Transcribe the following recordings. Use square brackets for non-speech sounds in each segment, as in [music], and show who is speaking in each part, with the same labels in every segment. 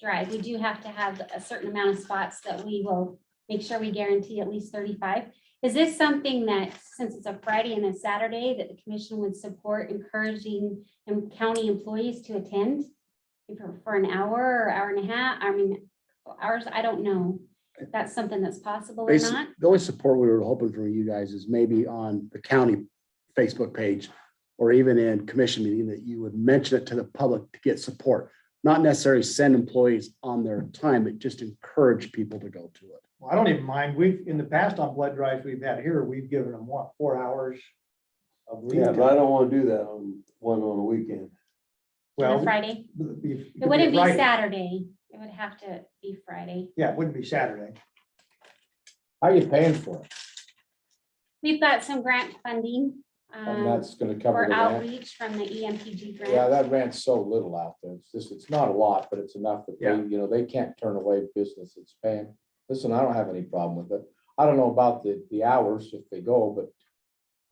Speaker 1: drive, we do have to have a certain amount of spots that we will make sure we guarantee at least thirty-five. Is this something that, since it's a Friday and a Saturday, that the commission would support encouraging em- county employees to attend? For for an hour or hour and a half, I mean, hours, I don't know. if That's something that's possible or
Speaker 2: Basi-
Speaker 1: not?
Speaker 2: The only support we were hoping for you guys is maybe on the county Facebook page or even in commission meeting that you would mention it to the public to get support. Not necessarily send employees on their time, but just encourage people to go to it.
Speaker 3: Well, I don't even mind. We've, in the past on blood drives we've had here, we've given them what, four hours? of lead
Speaker 4: Yeah,
Speaker 3: time.
Speaker 4: but I don't wanna do that on one on a weekend.
Speaker 1: On
Speaker 3: Well,
Speaker 1: a Friday?
Speaker 3: it'd be- it'd
Speaker 1: It wouldn't be
Speaker 3: Friday.
Speaker 1: Saturday. It would have to be Friday.
Speaker 3: Yeah, it wouldn't be Saturday.
Speaker 5: How are you paying for it?
Speaker 1: We've got some grant funding.
Speaker 5: And
Speaker 1: um,
Speaker 5: that's gonna cover
Speaker 1: for
Speaker 5: the rent.
Speaker 1: outreach from the E EMPG
Speaker 5: Yeah,
Speaker 1: grant.
Speaker 5: that rent's so little out there. It's just, it's not a lot, but it's enough that they,
Speaker 3: Yeah.
Speaker 5: you know, they can't turn away business that's paying. Listen, I don't have any problem with it. I don't know about the, the hours if they go,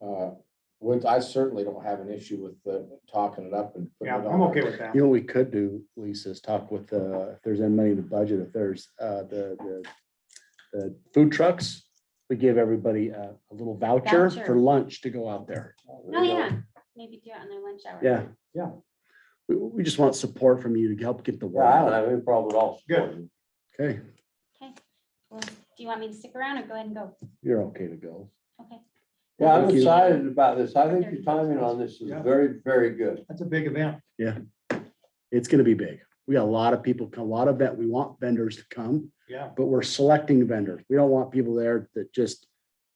Speaker 5: but uh, with, I certainly don't have an issue with the talking it up and. putting
Speaker 3: Yeah,
Speaker 5: it
Speaker 3: I'm
Speaker 5: on.
Speaker 3: okay with that.
Speaker 2: You know, what we could do, Lisa, is talk with, uh, if there's any money in the budget, if there's, uh, the, the, the food trucks, we give everybody a, a little voucher
Speaker 1: Voucher.
Speaker 2: for lunch to go out there.
Speaker 1: Oh, yeah, maybe do it on their lunch hour.
Speaker 2: Yeah.
Speaker 5: Yeah.
Speaker 2: We, we just want support from you to help get the
Speaker 4: Yeah,
Speaker 2: word
Speaker 4: I don't
Speaker 2: out.
Speaker 4: have any problem at all. supporting it.
Speaker 2: Okay,
Speaker 1: Okay. Well, do you want me to stick around or go ahead and go?
Speaker 2: you're okay to go.
Speaker 1: Okay.
Speaker 4: Yeah, I'm
Speaker 2: Thank you.
Speaker 4: excited about this. I think your timing on this is
Speaker 3: Yeah.
Speaker 4: very, very good.
Speaker 3: That's a big event.
Speaker 2: It's gonna be big. We got a lot of people, a lot of vet, we want vendors to come,
Speaker 3: Yeah,
Speaker 2: but we're selecting vendors. We don't want people there that just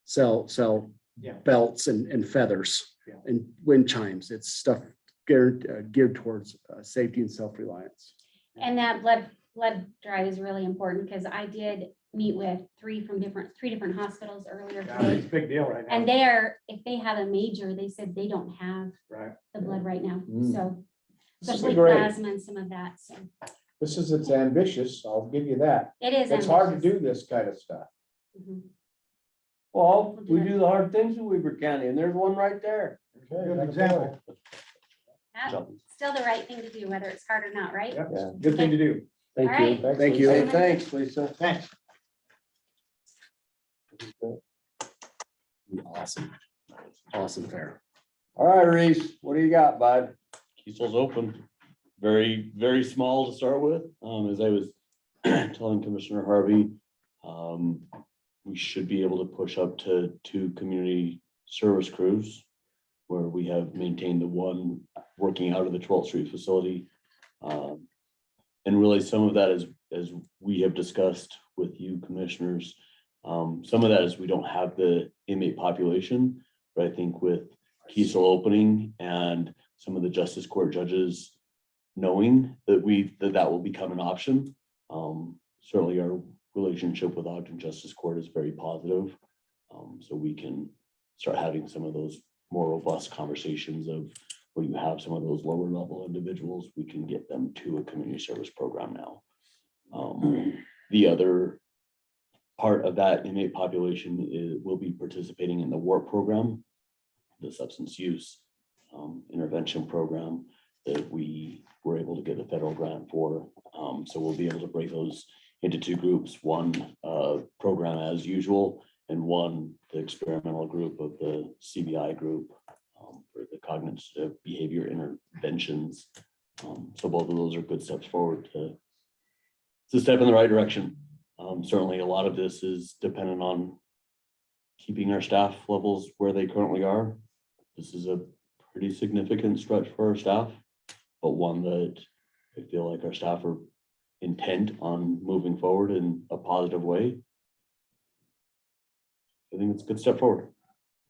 Speaker 2: sell, sell
Speaker 3: Yeah.
Speaker 2: belts and, and feathers
Speaker 3: Yeah.
Speaker 2: and wind chimes. It's stuff geared, uh, geared towards, uh, safety and self-reliance.
Speaker 1: And that blood, blood drive is really important because I did meet with three from different, three different hospitals earlier
Speaker 3: yeah, it's
Speaker 1: today.
Speaker 3: a big deal right now.
Speaker 1: And they are, if they have a major, they said they don't have
Speaker 3: Right.
Speaker 1: the blood right now,
Speaker 5: Mm.
Speaker 1: so
Speaker 5: This is
Speaker 1: especially
Speaker 5: great.
Speaker 1: plasma and some of that, so
Speaker 5: This is, it's ambitious. I'll give you that.
Speaker 1: it is.
Speaker 5: It's hard to do
Speaker 1: ambitious.
Speaker 5: this kind of stuff.
Speaker 1: Mhm.
Speaker 4: Well, we do the hard things in Weaver County and there's one right there.
Speaker 3: Good example.
Speaker 1: That's Still the right thing to do, whether it's hard or not, right?
Speaker 3: Yep, it's a good thing to do.
Speaker 2: Thank
Speaker 1: All
Speaker 2: you.
Speaker 1: right.
Speaker 2: Thank you.
Speaker 4: Hey, thanks, Lisa.
Speaker 3: Thanks.
Speaker 2: Awesome. Awesome fair.
Speaker 4: All right, Reese, what do you got, bud?
Speaker 6: Kiesel's open, very, very small to start with. Um, as I was [clears throat] telling Commissioner Harvey, um, we should be able to push up to two community service crews where we have maintained the one working out of the twelfth street facility. Um, and really some of that is, as we have discussed with you commissioners, um, some of that is we don't have the inmate population, but I think with Kiesel opening and some of the justice court judges knowing that we, that that will become an option. Um, certainly our relationship with Ogden Justice Court is very positive. Um, so we can start having some of those more robust conversations of when you have some of those lower level individuals, we can get them to a community service program now. Um, the other part of that inmate population is, will be participating in the WARP program, the substance use um, intervention program that we were able to get a federal grant for. Um, so we'll be able to break those into two groups, one, uh, program as usual, and one, the experimental group of the CBI group um, for the cognitive behavior interventions. Um, so both of those are good steps forward to it's a step in the right direction. Um, certainly a lot of this is dependent on keeping our staff levels where they currently are. This is a pretty significant stretch for our staff, but one that I feel like our staff are intent on moving forward in a positive way. I think it's a good step forward.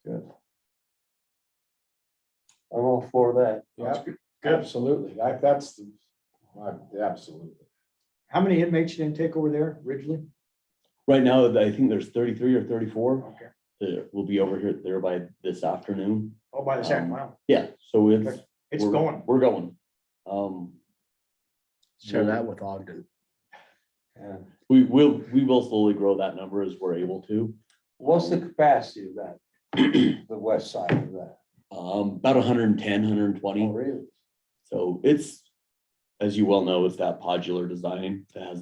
Speaker 4: I'm all for that.
Speaker 5: Yeah,
Speaker 3: Good.
Speaker 5: absolutely. I- That's, the- I- absolutely.
Speaker 3: How many inmates did they take over there originally?
Speaker 6: Right now, I think there's thirty-three or thirty-four
Speaker 3: Okay.
Speaker 6: that will be over here there by this afternoon.
Speaker 3: Oh, by the
Speaker 4: Um,
Speaker 3: second, wow,
Speaker 6: Yeah, so it's.
Speaker 3: it's
Speaker 6: we're-
Speaker 3: going.
Speaker 6: We're going. Um,
Speaker 2: Share that with Ogden.
Speaker 4: Yeah.
Speaker 6: we will, we will slowly grow that number as we're able to. [clears throat]
Speaker 4: What's the capacity of that? The west side of that?
Speaker 6: Um, about 110, 120.
Speaker 4: Oh, really?
Speaker 6: So it's, as you well know, it's that podular design that has